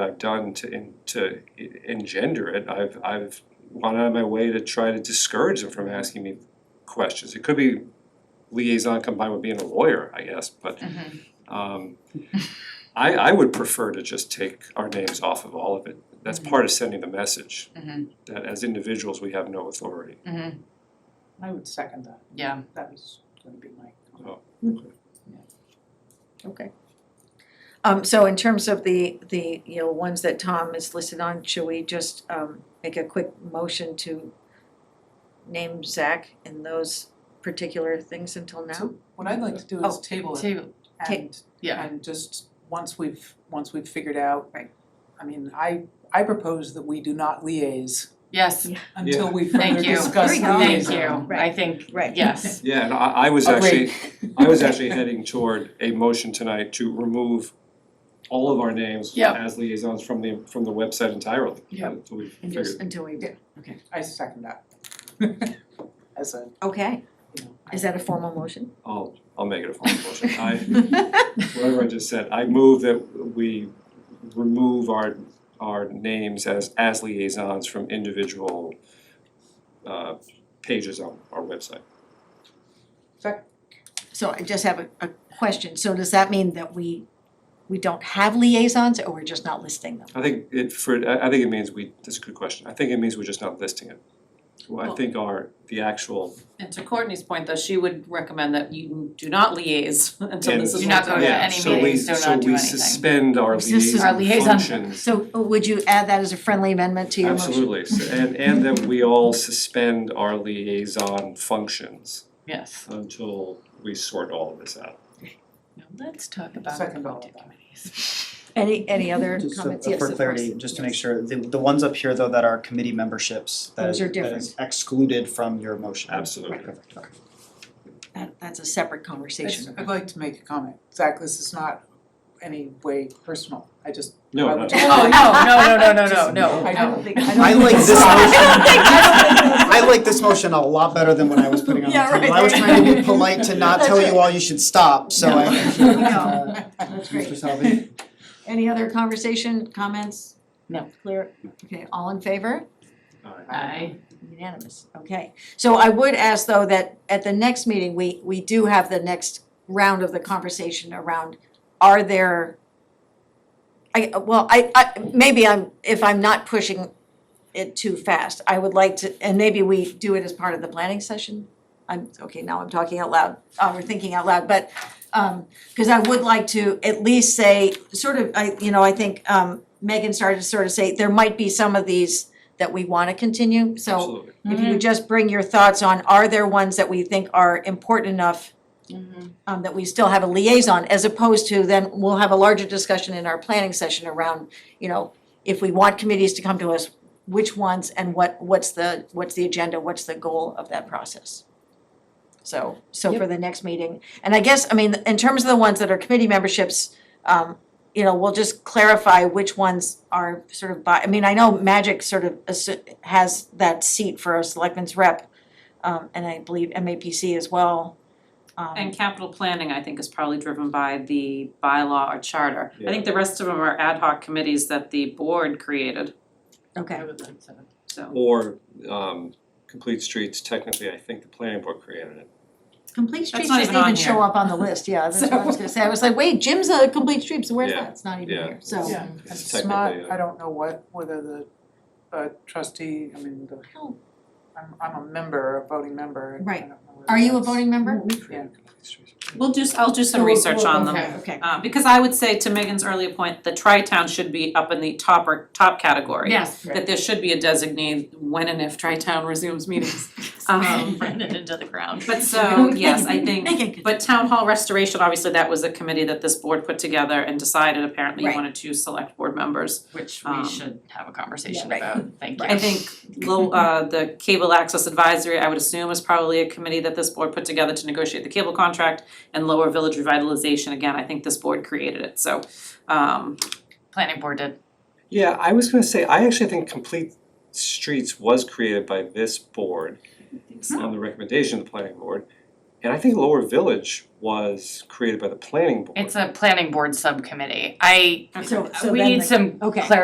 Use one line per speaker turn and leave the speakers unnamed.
I've done to in, to e- engender it, I've I've gone out of my way to try to discourage them from asking me questions. It could be liaison combined with being a lawyer, I guess, but um I I would prefer to just take our names off of all of it. That's part of sending the message
Mhm.
that as individuals, we have no authority.
I would second that,
Mm-hmm. Yeah,
that was gonna be my comment.
Okay. Um, so in terms of the, the, you know, ones that Tom is listed on, should we just, um, make a quick motion to name Zach in those particular things until now?
So what I'd like to do is
Oh.
table it
table,
Ta-
and
yeah,
and just, once we've, once we've figured out.
Right.
I mean, I I propose that we do not liaise
yes,
until we
Thank
further
you.
discuss liaison.
There we go.
thank you, I
Right.
think,
Right.
yes,
Yeah, and I I was
Oh,
actually
Agreed.
I was actually heading toward a motion tonight to remove all of our names
Yep.
as liaisons from the from the website entirely.
Yep.
Until we
And
figure,
just until we,
I second that. As a,
okay,
you know.
is that a formal motion?
I'll I'll make it a formal motion. I, whatever I just said, I move that we remove our our names as as liaisons from individual uh pages on our website.
So I just have a, a question, so does that mean that we, we don't have liaisons or we're just not listing them?
I think it for, I I think it means we, that's a good question. I think it means we're just not listing it. Well, I
Well-
think our, the actual,
And to Courtney's point, though, she would recommend that you do not liaise until
And-
this is.
Do not go to
looked at.
yeah,
Oh, any
so we,
meetings, do
so
not do
we
anything.
suspend our
It's just
liaison
our liaison.
functions.
So uh, would you add that as a friendly amendment to your motion?
Absolutely, So- and and that we all suspend our liaison functions
yes.
until we sort all of this out.
Now let's talk about
Second all of
appointed
that.
committees.
Any, any other
Just so-
comments? Yes,
for
of
clarity,
course.
just to make sure, the the ones up here though that are committee memberships, that
Those
is
are
that is excluded from your motion.
Absolutely.
Perfect, okay.
That, that's a separate conversation.
I'd like to make a comment, Zach, this is not any way personal, I just,
No, no,
Okay.
Oh, no, no, no, no, no, no, no.
I don't think, I don't.
I like
think-
this motion. I like this motion a lot better than what I was putting on the
Yeah,
table.
right,
I was
right.
trying to be polite to not
That's
tell you
right.
all you should stop, so I.
No. That's
Mr.
great.
Salvi?
Any other conversation, comments?
No.
Clear? Okay, all in favor?
I,
Unanimous, okay. So I would ask though that at the next meeting, we, we do have the next round of the conversation around, are there, I, well, I, I, maybe I'm, if I'm not pushing it too fast, I would like to, and maybe we do it as part of the planning session? I'm, okay, now I'm talking out loud, uh, or thinking out loud, but, um, cause I would like to at least say, sort of, I, you know, I think, um, Megan started to sort of say, there might be some of these that we wanna continue, so
absolutely.
if you would just bring your thoughts on, are there ones that we think are important enough um, that we still have a liaison, as opposed to then we'll have a larger discussion in our planning session around, you know, if we want committees to come to us, which ones and what, what's the, what's the agenda, what's the goal of that process? So, so for the next meeting, and I guess, I mean, in terms of the ones that are committee memberships, um, you know, we'll just clarify which ones are sort of by, I mean, I know Magic sort of assu- has that seat for a selectman's rep, um, and I believe MAPC as well. Um,
And capital planning, I think, is probably driven by the bylaw or charter. I think the rest of them are ad hoc committees that the board created,
Okay,
I would like to,
so.
Or um complete streets, technically, I think the planning board created it.
complete
That's
streets
not
doesn't
even on
even show
here.
up on the list, yeah, that's what I was gonna say, I was like, wait, Jim's a complete streets, where's
Yeah,
that, it's not even
yeah.
here, so.
Yeah,
It's
it's not,
technically a-
I don't know what, whether the uh trustee, I mean, the,
Oh,
I'm I'm a member, a voting member, and I
Right.
don't know whether
Are you a
that's-
voting member?
We created complete streets.
We'll do, I'll do some research on them.
Okay, okay,
Uh, because I would say to Megan's earlier point, the tri-town should be up in the top or top category.
yes.
That there should be a designate when and if tri-town resumes meetings. Um,
Run it into the ground.
But so, yes, I think
okay,
But town hall restoration, obviously, that was a committee that this board put together and decided apparently you
Right.
wanted to select board members.
Which
Um,
we should have a conversation
Yeah, right.
about, thank you.
I think low, uh, the cable access advisory, I would assume, is probably a committee that this board put together to negotiate the cable contract. And lower village revitalization, again, I think this board created it, so, um,
Planning board did,
Yeah, I was gonna say, I actually think complete streets was created by this board on the recommendation of the planning board. And I think Lower Village was created by the planning board.
It's a planning board subcommittee. I,
So- so
we
then
need
the-
some
okay.
clarification